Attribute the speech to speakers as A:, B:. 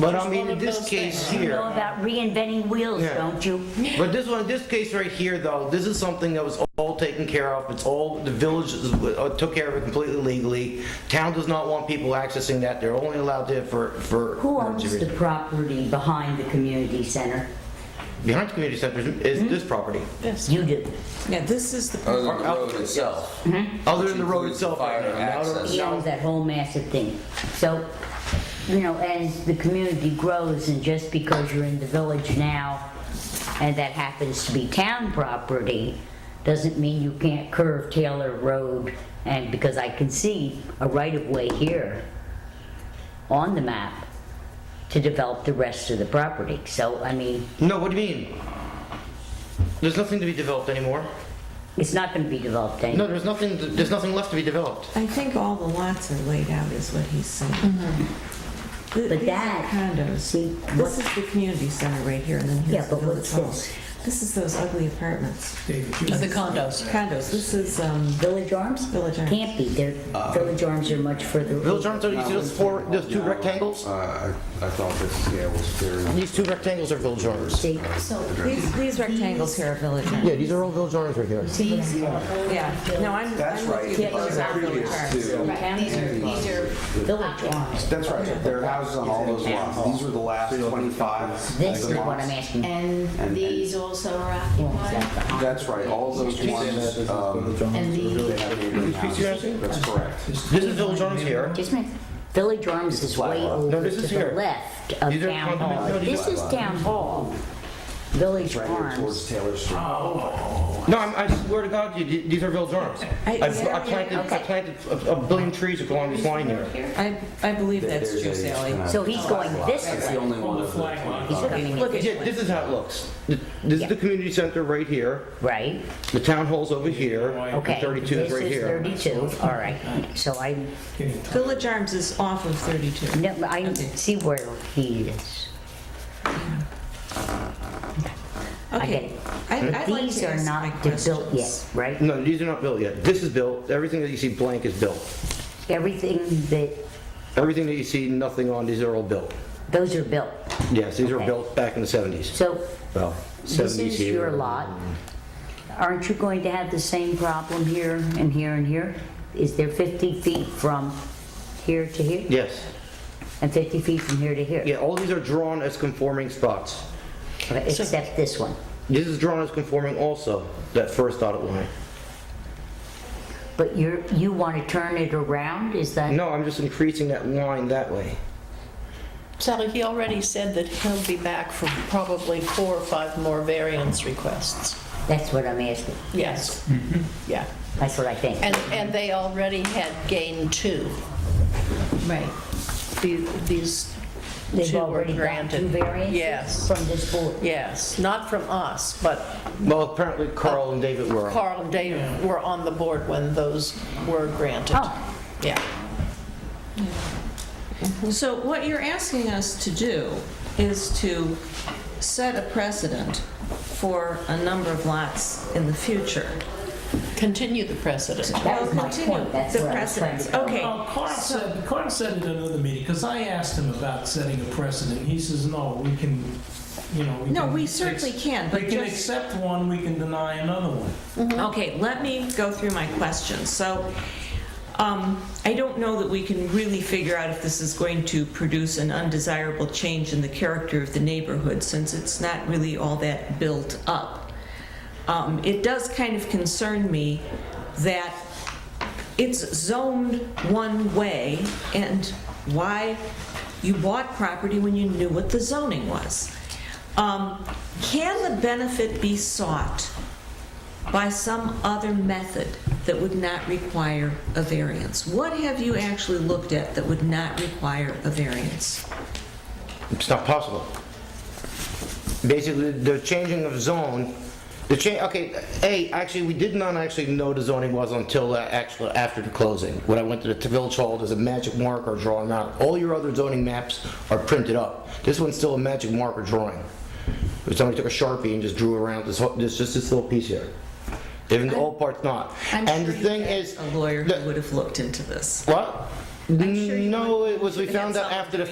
A: But
B: It's
A: I mean,
B: one
A: in
B: of
A: this
B: those
A: case
B: things.
A: here.
C: You know about reinventing wheels,
A: Yeah.
C: don't you?
A: But this one, this case right here, though, this is something that was all taken care of. It's all, the village is- uh, took care of it completely legally. Town does not want people accessing that. They're only allowed to for, for.
C: Who
A: emergency
C: owns the
A: reasons.
C: property behind the community center?
A: Behind the community center is
C: Hmm?
A: is this property.
C: You do.
B: Yeah, this is the,
D: Other than the road itself.
A: Other than the road
D: Includes
A: itself.
D: fire
A: right now.
D: access.
C: He owns that whole massive thing. So, you know, as the community grows and just because you're in the village now and that happens to be town property, doesn't mean you can't curve Taylor Road and because I can see a right of way here on the map to develop the rest of the property. So, I mean,
A: No, what do you mean? There's nothing to be developed anymore.
C: it's not gonna be developed
A: No,
C: anymore.
A: there's nothing, there's nothing left to be developed.
E: I think all the lots are laid out is what he's saying. Th-
C: Mm-hmm. But
E: These are
C: that-
E: condos.
C: See,
E: This is the community center right here and then
C: Yeah,
E: here's the
C: but
E: village
C: what's
E: hall.
C: this?
E: This is those ugly apartments,
B: of the condos.
E: condos. This is, um,
C: Village Arms?
E: Village Arms.
C: Can't be, they're,
F: Uh,
C: Village Arms are much further.
A: Village Arms, you see those four, those two
F: No.
A: rectangles?
F: Uh, I I thought this, yeah, was very.
A: These two rectangles are Village Arms.
C: See,
E: so these, these rectangles here are village.
A: Yeah, these are all Village Arms right here.
C: these are all
E: Yeah, no, I'm,
F: That's
E: I'm
F: right.
E: with you. Those are village
F: Previous
E: homes.
F: to-
C: These are, these are village arms.
F: That's right, there are houses on all those lots, these were the last 25.
C: This is
F: lots.
C: what I'm asking.
F: And-
G: And these also are occupied.
F: That's right, all those ones, um,
G: And
F: they
G: these,
F: have neighboring houses, that's correct.
A: This is Village Arms here.
C: Just a minute. Village Arms is way over
A: this
C: to
A: is
C: the
A: here.
C: left of
A: These are
C: Town Hall.
A: condominium- no, these
C: This is Town Hall. Village
F: Right here towards
C: Arms.
F: Taylor Street.
C: Oh,
A: No, I'm, I swear to God, you, these are Village Arms.
E: I-
A: I've-
E: yeah,
A: I planted, I
C: okay.
A: planted a a billion trees along this line here.
E: I, I believe that's
F: There's
E: true,
F: a-
E: Sally.
C: So he's going this
F: Oh, That's the
C: way.
F: only one of the 25.
C: He's coming in,
E: Look
A: Yeah,
E: at,
A: this is how it looks. Th- This is the community center right here,
C: right?
A: the town hall's over here, and
C: Okay.
A: 32 is right here.
C: This is 32, all right. So I,
E: Village Arms is off of 32.
C: no, I
E: Okay.
C: see where he is. get
E: Okay.
C: it.
E: I- I'd like
C: These
E: to
C: are
E: ask my
C: not built
E: questions.
C: yet, right?
A: No, these are not built yet. This is built, everything that you see blank is built.
C: Everything that,
A: Everything that you see nothing on, these are all built.
C: those are built.
A: Yes, these were
C: Okay.
A: built back in the 70s.
C: So
A: Well, 70s here.
C: this is your lot. Aren't you going to have the same problem here and here and here? Is there 50 feet from here to here?
A: Yes.
C: And 50 feet from here to here?
A: Yeah, all these are drawn as conforming spots.
C: Okay, Except this one.
A: This is drawn as conforming also, that first dotted line.
C: But you're, you want to turn it around, is that?
A: No, I'm just increasing that line that way.
B: Sally, he already said that he'll be back for probably four or five more variance requests.
C: That's what I'm asking.
B: Yes. Yeah.
C: That's what I think.
B: And, and they already had gained two.
G: right.
B: The- These
C: They've
B: two were
C: already got two
B: granted.
C: variances
B: Yes,
C: from this board.
B: yes. Not from us, but
A: Well, apparently Carl and David were.
B: Carl and Dave were on the board when those were granted.
C: Oh.
B: Yeah.
E: So what you're asking us to do is to set a precedent for a number of lots in the future.
B: Continue the precedent.
C: That was
E: Well,
C: my
E: continue
C: point, that's
E: the
C: where I was trying to
E: precedents.
C: go.
E: Okay.
H: Well, Carl Oh, said, Carl said in another meeting, because I asked him about setting a precedent. He says, no, we can, you know, we
E: No,
H: can
E: we
H: ex-
E: certainly can, but
H: We can
E: just-
H: accept one, we can deny another one.
E: Okay, let me go through my questions. So, um, I don't know that we can really figure out if this is going to produce an undesirable change in the character of the neighborhood, since it's not really all that built up. Um, It does kind of concern me that it's zoned one way, and why you bought property when you knew what the zoning was. Um, Can the benefit be sought by some other method that would not require a variance? What have you actually looked at that would not require a variance?
A: It's not possible. Basically, the changing of zone, the change, okay, A, actually, we did not actually know the zoning was until uh, actually after the closing. When I went to the t- village hall, there's a magic marker drawing out. All your other zoning maps are printed up. This one's still a magic marker drawing. Somebody took a Sharpie and just drew around this, whole- this, just this little piece here. Even the old part's not.
E: I'm
A: And the
E: sure
A: thing
E: you had
A: is.
E: A lawyer
A: the-
E: who would have looked into this.
A: What?
E: sure you
A: No,
E: would.
A: it was, we
E: You had
A: found out
E: someone
A: after the